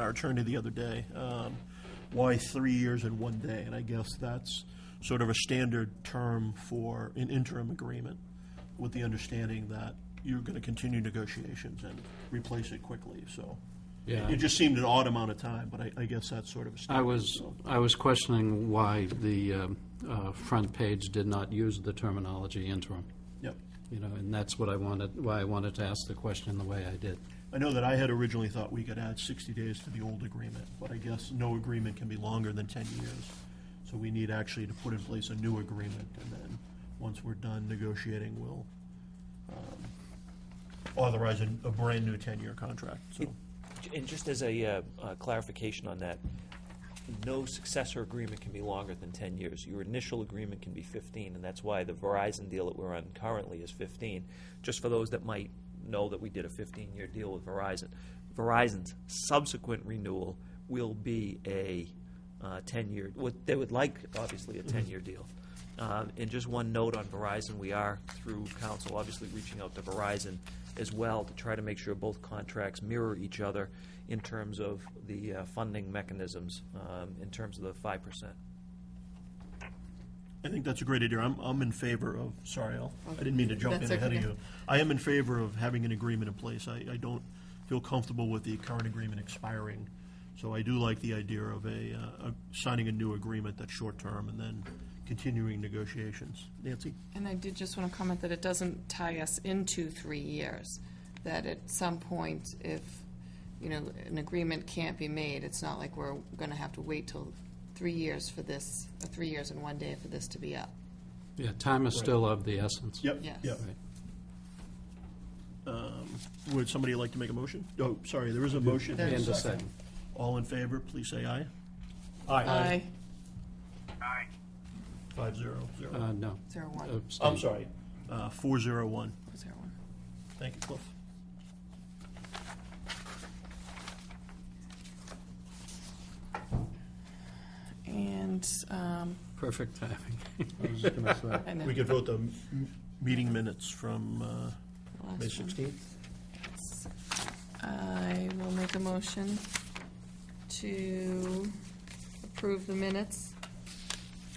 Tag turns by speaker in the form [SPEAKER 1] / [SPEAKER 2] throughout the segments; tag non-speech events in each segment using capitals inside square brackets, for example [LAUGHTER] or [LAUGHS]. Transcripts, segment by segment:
[SPEAKER 1] our attorney the other day, um, why three years and one day? And I guess that's sort of a standard term for an interim agreement, with the understanding that you're going to continue negotiations and replace it quickly, so.
[SPEAKER 2] Yeah.
[SPEAKER 1] It just seemed an odd amount of time, but I, I guess that's sort of a
[SPEAKER 2] I
[SPEAKER 1] standard.
[SPEAKER 2] was,
[SPEAKER 1] so.
[SPEAKER 2] I was questioning why the um, uh, front page did not use the terminology interim,
[SPEAKER 1] Yep.
[SPEAKER 2] you know, and that's what I wanted, why I wanted to ask the question the way I did.
[SPEAKER 1] I know that I had originally thought we could add 60 days to the old agreement, but I guess no agreement can be longer than 10 years. So we need actually to put in place a new agreement, and then, once we're done negotiating, we'll um, authorize a a brand-new 10-year contract, so.
[SPEAKER 3] And just as a uh, uh, clarification on that, no successor agreement can be longer than 10 years. Your initial agreement can be 15, and that's why the Verizon deal that we're on currently is 15. Just for those that might know that we did a 15-year deal with Verizon, Verizon's subsequent renewal will be a 10-year, uh, what they would like, obviously, a 10-year deal. Um, And just one note on Verizon, we are, through council, obviously reaching out to Verizon as well to try to make sure both contracts mirror each other in terms of the uh, funding mechanisms, um, in terms of the 5%.
[SPEAKER 1] I think that's a great idea. I'm, I'm in favor of, sorry, Al, I didn't mean to jump in
[SPEAKER 4] That's
[SPEAKER 1] ahead of
[SPEAKER 4] okay.
[SPEAKER 1] you. I am in favor of having an agreement in place. I, I don't feel comfortable with the current agreement expiring. So I do like the idea of a, uh, of signing a new agreement that's short-term and then continuing negotiations. Nancy?
[SPEAKER 4] And I did just want to comment that it doesn't tie us into three years, that at some point, if, you know, an agreement can't be made, it's not like we're going to have to wait till three years for this, uh, three years and one day for this to be up.
[SPEAKER 2] Yeah, time is still of the essence.
[SPEAKER 1] Yep,
[SPEAKER 4] Yes.
[SPEAKER 1] yep.
[SPEAKER 2] Right.
[SPEAKER 1] Um, Would somebody like to make a motion? Oh, sorry, there is a motion.
[SPEAKER 4] There's
[SPEAKER 2] And a
[SPEAKER 4] Second.
[SPEAKER 2] second.
[SPEAKER 1] All in favor, please say aye.
[SPEAKER 4] Aye.
[SPEAKER 1] Five zero zero.
[SPEAKER 2] Uh, No.
[SPEAKER 4] Zero one.
[SPEAKER 2] Abstain.
[SPEAKER 1] I'm sorry, uh, four zero one.
[SPEAKER 4] Zero one.
[SPEAKER 1] Thank you, Cliff.
[SPEAKER 4] And, um,
[SPEAKER 2] Perfect
[SPEAKER 1] [LAUGHS]
[SPEAKER 2] timing.
[SPEAKER 4] I know.
[SPEAKER 1] We could vote the m- m- meeting minutes from uh,
[SPEAKER 4] the last
[SPEAKER 1] May
[SPEAKER 4] one.
[SPEAKER 1] 16th.
[SPEAKER 4] I will make a motion to approve the minutes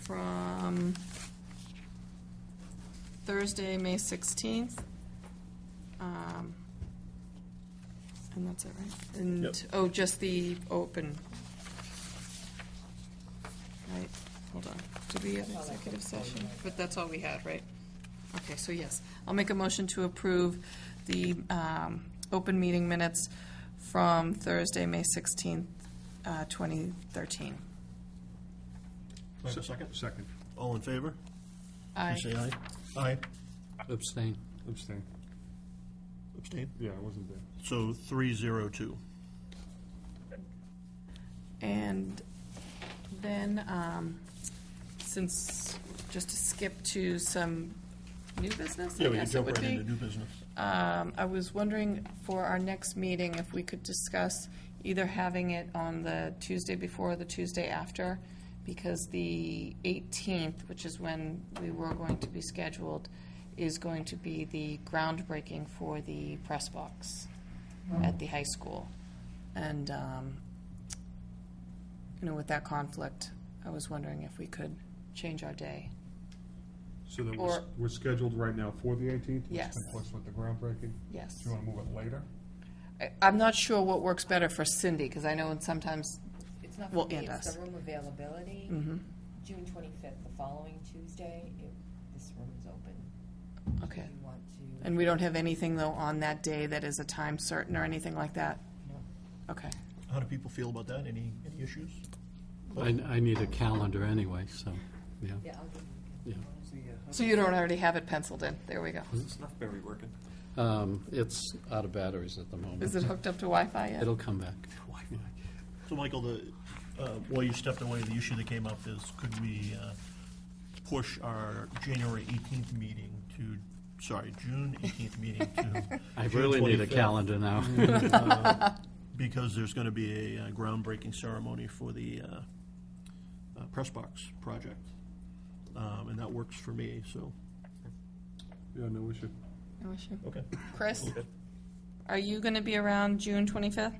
[SPEAKER 4] from Thursday, May 16th. Um, And that's it, right? And,
[SPEAKER 1] Yep.
[SPEAKER 4] oh, just the open. Right, hold on. Did we have an executive session? But that's all we had, right? Okay, so yes, I'll make a motion to approve the um, open meeting minutes from Thursday, May 16th, uh, 2013.
[SPEAKER 1] Do I have a second?
[SPEAKER 5] Second.
[SPEAKER 1] All in favor?
[SPEAKER 4] Aye.
[SPEAKER 1] Say aye. Aye.
[SPEAKER 2] Abstain.
[SPEAKER 5] Abstain.
[SPEAKER 1] Abstain.
[SPEAKER 5] Yeah, I wasn't there.
[SPEAKER 1] So 302.
[SPEAKER 4] And then, um, since, just to skip to some new business, I
[SPEAKER 1] Yeah, we can
[SPEAKER 4] guess it
[SPEAKER 1] jump
[SPEAKER 4] would
[SPEAKER 1] right
[SPEAKER 4] be.
[SPEAKER 1] into new business.
[SPEAKER 4] Um, I was wondering for our next meeting if we could discuss either having it on the Tuesday before or the Tuesday after, because the 18th, which is when we were going to be scheduled, is going to be the groundbreaking for the press box at the high school. And, um, you know, with that conflict, I was wondering if we could change our day.
[SPEAKER 5] So then
[SPEAKER 4] Or-
[SPEAKER 5] we're, we're scheduled right now for the eighteenth?
[SPEAKER 4] Yes.
[SPEAKER 5] Conflicts with the groundbreaking?
[SPEAKER 4] Yes.
[SPEAKER 5] Do you want to move it later?
[SPEAKER 4] I- I'm not sure what works better for Cindy, because I know in sometimes,
[SPEAKER 6] It's not
[SPEAKER 4] Well,
[SPEAKER 6] for me,
[SPEAKER 4] and
[SPEAKER 6] it's
[SPEAKER 4] us. Mm-hmm.
[SPEAKER 6] the room availability. June twenty-fifth, the following Tuesday, if this room is open. Do
[SPEAKER 4] okay.
[SPEAKER 6] you want to?
[SPEAKER 4] And we don't have anything, though, on that day that is a time certain or anything like that?
[SPEAKER 6] No.
[SPEAKER 4] Okay.
[SPEAKER 1] How do people feel about that? Any, any issues?
[SPEAKER 2] I, I need a calendar anyway, so, yeah.
[SPEAKER 6] Yeah, I'll give you.
[SPEAKER 2] Yeah.
[SPEAKER 4] So you don't already have it penciled in? There we go.
[SPEAKER 2] Um, It's out of batteries at the moment.
[SPEAKER 4] Is it hooked up to Wi-Fi yet?
[SPEAKER 2] It'll come back.
[SPEAKER 1] So, Michael, the, uh, while you stepped away, the issue that came up is could we uh, push our January 18th meeting to, sorry, June 18th meeting to
[SPEAKER 2] [LAUGHS] I
[SPEAKER 1] June
[SPEAKER 2] really need a
[SPEAKER 1] 25th?
[SPEAKER 2] calendar
[SPEAKER 4] [LAUGHS]
[SPEAKER 2] now.
[SPEAKER 1] because there's going to be a uh, groundbreaking ceremony for the uh, uh, press box project, Um, and that works for me, so.
[SPEAKER 5] Yeah, no issue.
[SPEAKER 4] No issue.
[SPEAKER 1] Okay.
[SPEAKER 4] Chris, are you going to be around June 25th?